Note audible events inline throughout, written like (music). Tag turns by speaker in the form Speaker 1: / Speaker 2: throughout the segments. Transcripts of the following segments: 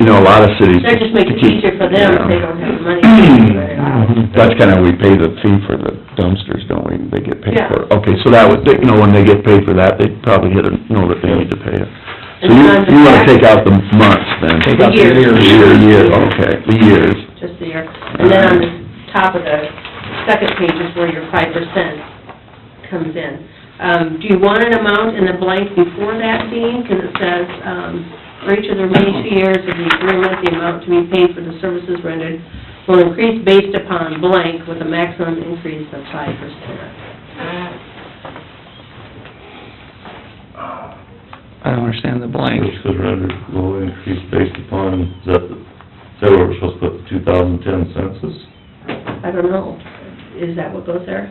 Speaker 1: You know, a lot of cities.
Speaker 2: That just makes it easier for them if they don't have the money to figure it out.
Speaker 1: (clears throat) That's kinda, we pay the fee for the dumpsters, don't we? They get paid
Speaker 2: Yeah.
Speaker 1: for it. Okay, so that would, they- you know, when they get paid for that, they probably get a, know that they need to pay it.
Speaker 2: And
Speaker 1: So you,
Speaker 2: times
Speaker 1: you wanna
Speaker 2: of-
Speaker 1: take out the months then?
Speaker 3: Take out the
Speaker 2: year.
Speaker 1: The
Speaker 3: years.
Speaker 1: year, year, okay, the years.
Speaker 2: Just the year. And then on the top of the second page is where your five percent comes in. Um, do you want an amount in the blank before that, Dean? Because it says, um, for each of the remaining two years of the agreement, the amount to be paid for the services rendered will increase based upon blank with a maximum increase of five percent.
Speaker 3: I don't understand the blank.
Speaker 4: Service rendered will increase based upon, is that, the- is that where we're supposed to put the two thousand ten census?
Speaker 2: I don't know. Is that what goes there?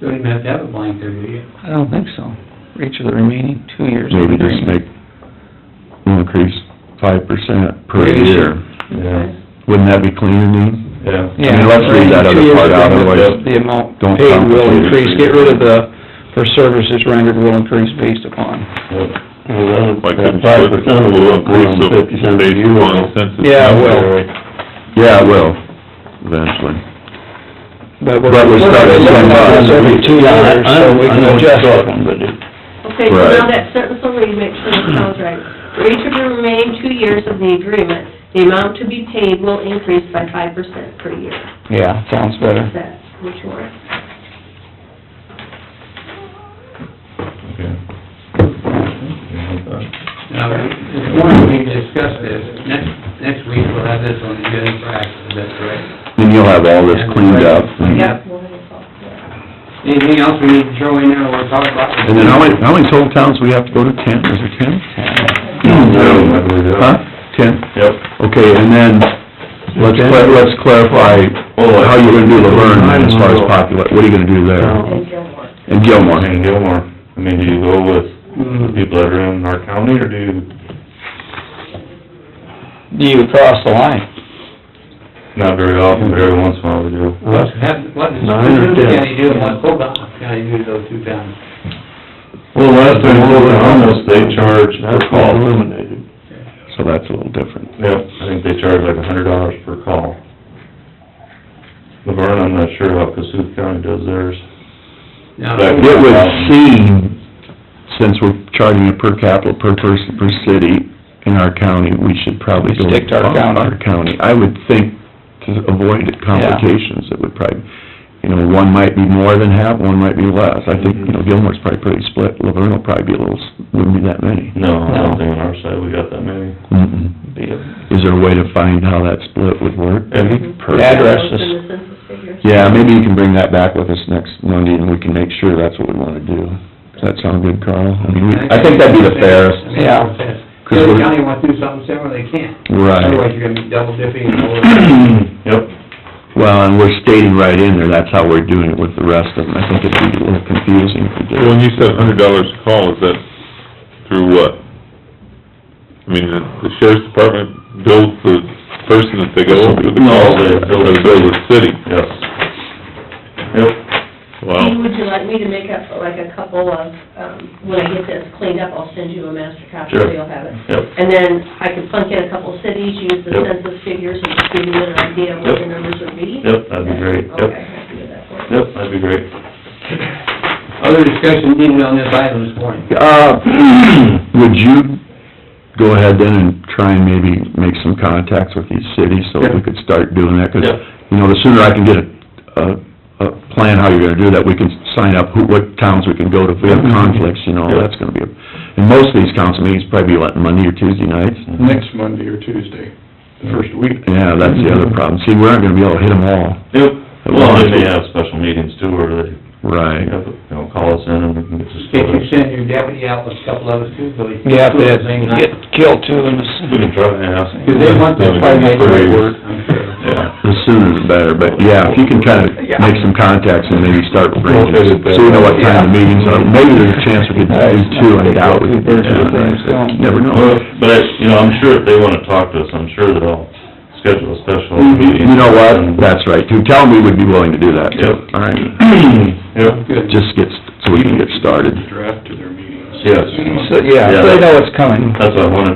Speaker 5: Don't even have to have a blank there, do you?
Speaker 3: I don't think so. For each of the remaining two years of
Speaker 1: Maybe just
Speaker 3: agreement.
Speaker 1: make, increase five percent per
Speaker 3: Maybe.
Speaker 1: year.
Speaker 4: Yeah,
Speaker 1: Wouldn't that be cleaner, Dean? I
Speaker 4: yeah.
Speaker 1: mean, let's read that other part out, otherwise,
Speaker 3: The amount
Speaker 1: don't
Speaker 3: paid will
Speaker 1: complicate it.
Speaker 3: increase, get rid of the, for services rendered will increase based upon.
Speaker 6: Like that five percent will increase of based upon census.
Speaker 3: Yeah, it will.
Speaker 1: Yeah, it will, eventually.
Speaker 3: But we're.
Speaker 1: But we started
Speaker 3: looking at this Every two years, so we can adjust it.
Speaker 2: Okay, so now
Speaker 1: Right.
Speaker 2: that sentence will read, make sure it sounds right. For each of the remaining two years of the agreement, the amount to be paid will increase by five percent per year.
Speaker 3: Yeah, sounds
Speaker 2: Is
Speaker 3: better.
Speaker 2: that which one?
Speaker 4: Okay.
Speaker 5: Now, this morning we discussed this, next, next week we'll have this on the agenda for action, is that correct?
Speaker 1: Then you'll have all this cleaned up. and-
Speaker 5: Yep. Anything else we need to throw in there or we'll talk about?
Speaker 1: And then how many, how many total towns we have to go to? Ten, is it ten?
Speaker 4: No, I believe that.
Speaker 1: Huh? Ten?
Speaker 4: Yep.
Speaker 1: Okay, and then, let's, cla- let's clarify,
Speaker 4: Oh,
Speaker 1: how you're gonna do Laverne as far as popula, what are you gonna do there?
Speaker 2: And Gilmore.
Speaker 1: And Gilmore,
Speaker 4: And Gilmore, I mean, do you go with the
Speaker 5: Hmm.
Speaker 4: people that are in our county, or do you
Speaker 3: Do you cross the line?
Speaker 4: Not very often, but every once in a while we do.
Speaker 5: What, what does
Speaker 1: Nine or
Speaker 5: Purdue
Speaker 1: ten?
Speaker 5: County do and what Hobart County do to those two towns?
Speaker 4: Well, last time we were on this, they charged per call.
Speaker 6: eliminated.
Speaker 1: so that's a little different.
Speaker 4: Yep, I think they charge like a hundred dollars per call. Laverne, I'm not sure how Cassuth County does theirs.
Speaker 5: Now,
Speaker 4: Back
Speaker 1: It would seem, since we're charging a per capita, per person, per city in our county, we should probably go.
Speaker 3: Stick to our county.
Speaker 1: Our county. I would think to avoid complications, it would probably, you know, one might be more than half, one might be less. I think, you know, Gilmore's probably pretty split, Laverne will probably be a little, s- wouldn't be that many.
Speaker 4: No, I don't think on our side we got that many.
Speaker 1: Mm-mm. Is there a way to find how that split would work?
Speaker 4: And
Speaker 3: Addresses.
Speaker 2: In the census figures.
Speaker 1: Yeah, maybe you can bring that back with us next Monday and we can make sure that's what we wanna do. Does that sound good, Carl? I mean, we, I think that'd be the
Speaker 5: I
Speaker 1: fairest.
Speaker 5: mean,
Speaker 3: Yeah.
Speaker 5: it's fair. If The other county wants to do something similar, they can't.
Speaker 1: Right. (clears throat)
Speaker 5: Otherwise, you're gonna be double dipping and all
Speaker 4: Yep,
Speaker 1: Well, and we're stating right in there, that's how we're doing it with the rest of them. I think it'd be a little confusing if we
Speaker 6: So when
Speaker 1: did.
Speaker 6: you said a hundred dollars a call, is that through what? I mean, the the sheriff's department bills the person that they go through the call,
Speaker 4: No,
Speaker 6: or
Speaker 4: they bill the
Speaker 6: they bill the city?
Speaker 4: yes. Yep,
Speaker 2: Dean,
Speaker 6: Wow.
Speaker 2: would you like me to make up like a couple of, um, when I get this cleaned up, I'll send you a master copy, so
Speaker 4: Sure.
Speaker 2: you'll have it.
Speaker 4: yep.
Speaker 2: And then I can plunk in a couple cities, use the
Speaker 4: Yep.
Speaker 2: census figures, and just give you an idea of what the
Speaker 4: Yep.
Speaker 2: numbers would be.
Speaker 4: Yep, that'd be great, yep.
Speaker 2: Okay, I can do that for you.
Speaker 4: Yep, that'd be great.
Speaker 5: Other discussion needed on this item this morning.
Speaker 1: Uh, (clears throat) would you go ahead then and try and maybe make some contacts with these cities so that we could start doing that? 'Cause
Speaker 4: Yep,
Speaker 1: you know, the sooner I can get a, a, a plan how you're gonna do that, we can sign up who, what towns we can go to if we
Speaker 7: Mm-hmm.
Speaker 1: have conflicts, you know, that's gonna be, a and most of these council meetings probably be like Monday or Tuesday nights.
Speaker 7: Mm-hmm. next Monday or Tuesday, the first week. Mm-hmm.
Speaker 1: Yeah, that's the other problem. See, we aren't gonna be able to hit them all.
Speaker 4: yep. Well, they may have special meetings too, where they,
Speaker 1: Right.
Speaker 4: you know, call us in and we can get this.
Speaker 5: Can't you send your deputy out with a couple of us too, Billy?
Speaker 3: Yeah, if
Speaker 5: Two of
Speaker 3: they
Speaker 5: them, huh?
Speaker 3: get killed too in this.
Speaker 4: We can try and ask.
Speaker 5: Do they want this by May
Speaker 4: Three.
Speaker 5: first? I'm sure.
Speaker 4: Yeah.
Speaker 1: The sooner the better, but yeah, if you can kinda make some contacts and maybe start bringing, so we know what time the meetings are. Maybe there's a chance we could do two, I doubt we could do two. Never know.
Speaker 4: Well, But, I you know, I'm sure if they wanna talk to us, I'm sure that I'll schedule a special meeting.
Speaker 1: Mm-hmm. You know what? That's right, too. Tell them we would be willing to do that, too.
Speaker 4: Yep.
Speaker 1: All right. (clears throat)
Speaker 4: Yep,
Speaker 5: Good.
Speaker 1: just get, so we can get started.
Speaker 7: Draft to their meetings.
Speaker 4: yes.
Speaker 3: So, yeah, so they know what's coming.
Speaker 4: That's what I wanted